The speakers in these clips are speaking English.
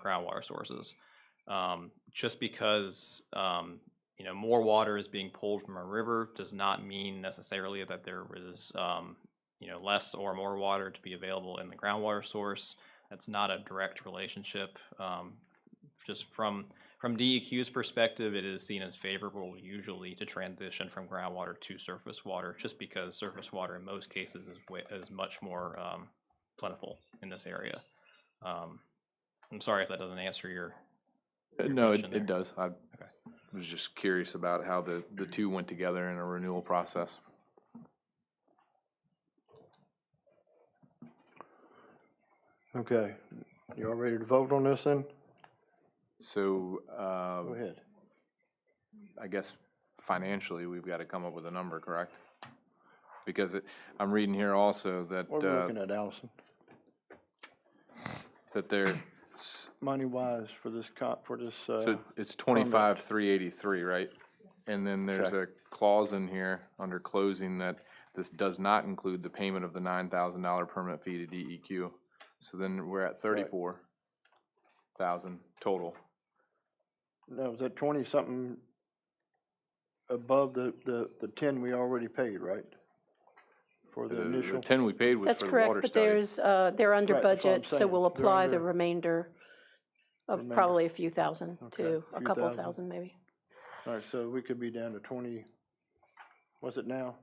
groundwater sources. Um, just because, um, you know, more water is being pulled from a river does not mean necessarily that there was, um, you know, less or more water to be available in the groundwater source. That's not a direct relationship. Um, just from, from DEQ's perspective, it is seen as favorable usually to transition from groundwater to surface water, just because surface water in most cases is, wa- is much more um, plentiful in this area. Um, I'm sorry if that doesn't answer your. Uh, your No, it, question there. it does. I was just curious about how the, the two went together in a renewal process. Okay, you all ready to vote on this then? So, Go uh, ahead. I guess financially, we've got to come up with a number, correct? Because it, I'm reading here also What that, are we uh, looking at, Allison? that they're, s- Money wise for this cop, for this, uh, so it's twenty-five, three eighty-three, right? And then there's a clause in here under closing that this does not include the payment of the nine thousand dollar permit fee to DEQ. So then we're at thirty-four thousand total. no, was that twenty something above the, the, the ten we already paid, right? For Uh, The- the The initial, ten we paid was That's for the water study. correct, but there's, uh, they're under Right, that's what I'm budget, so saying. we'll They're apply the under- remainder of Remainder. probably a few thousand Okay, to, a few couple of thousand. thousand maybe. alright, so we could be down to twenty, what's it now?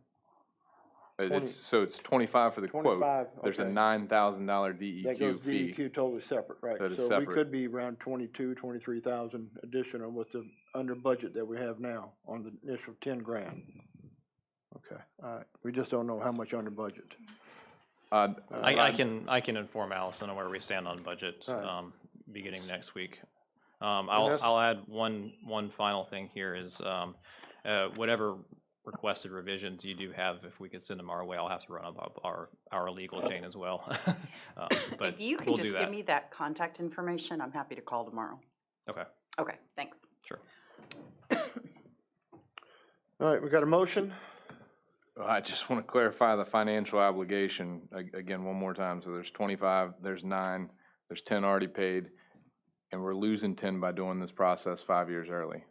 It- 20. Uh, It's, so it's twenty-five for the quote. Twenty-five, There's a okay. nine thousand dollar That goes E DEQ fee. DEQ totally separate, right? That is So we separate. could be around twenty-two, twenty-three thousand additional with the under budget that we have now on the initial ten grand. Okay, all right, we just don't know how much under budget. Uh, Uh, I, I can, I can inform Allison on where we stand on budget, Alright. um, beginning next week. Um, I'll, that's- I'll add one, one final thing here is, um, uh, whatever requested revisions you do have, if we could send them our way, I'll have to run up our, our legal Oh. chain as well. Um, But If you we'll can do just that. give me that contact information, I'm happy to call tomorrow. Okay, Okay, thanks. sure. All right, we got a motion? I just want to clarify the financial obligation a- again, one more time. So there's twenty-five, there's nine, there's ten already paid. And we're losing ten by doing this process five years early.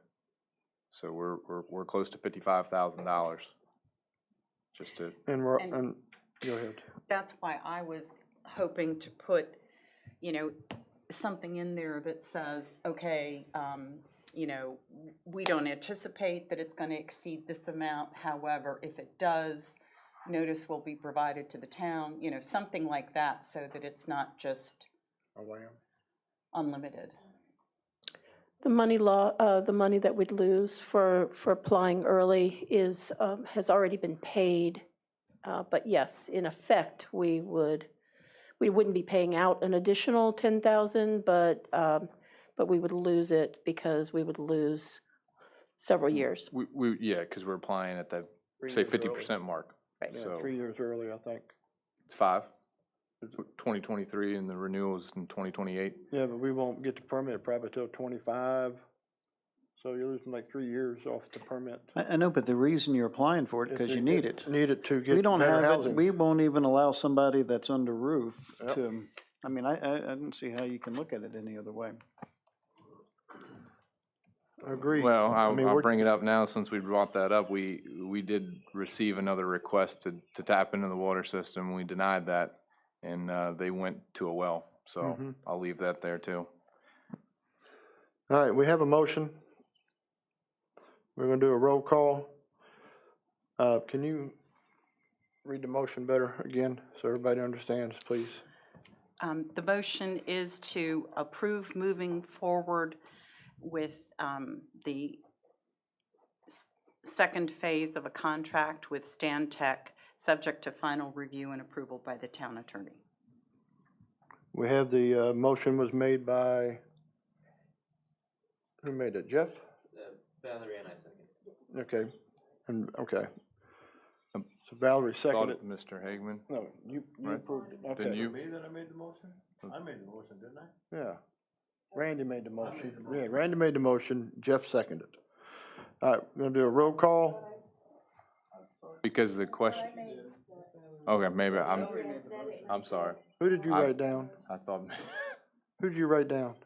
So we're, we're, we're close to fifty-five thousand dollars. Just to, And we're, And- and, go ahead. That's why I was hoping to put, you know, something in there that says, okay, um, you know, we don't anticipate that it's gonna exceed this amount, however, if it does, notice will be provided to the town, you know, something like that, so that it's not just unlimited. The money law, uh, the money that we'd lose for, for applying early is, um, has already been paid. Uh, But yes, in effect, we would, we wouldn't be paying out an additional 10,000, but, um, but we would lose it because we would lose several Hmm. years. we, we, yeah, because we're applying at the, say fifty percent mark. Right. So- Yeah, three years early, I think. It's five. Twenty twenty-three and the renewals in twenty twenty-eight. Yeah, but we won't get the permit probably till twenty-five, so you're losing like three years off the permit. I, I know, but the reason you're applying for it, because you need it. Need it to We get don't better have it, housing. we won't even allow somebody that's under roof Yep. to, I mean, I, I, I don't see how you can look at it any other way. Agreed. Well, I'll, mean, I'll we're- bring it up now, since we brought that up, we, we did receive another request to, to tap into the water system, we denied that, and, uh, they went to a well, so Mhm. I'll leave that there too. All right, we have a motion. We're gonna do a roll call. Uh, can you read the motion better again, so everybody understands, please? Um, The motion is to approve moving forward with um, the s- second phase of a contract with Stan Tech, subject to final review and approval by the town attorney. We have the, uh, motion was made by, who made it, Jeff? Uh, Valerie and I second. Okay, and, okay. Um, So Valerie Thought seconded. it, Mr. Hagman, No, you, you Right. approved it, then okay. you, that I made the motion? I made the motion, didn't I? Yeah. Randy made the motion. made the Yeah, Randy made the motion, Jeff seconded. All right, we're gonna do a roll call. because the question. Okay, maybe, I'm, I'm sorry, Who did you I- write down? I thought, Who did you write down?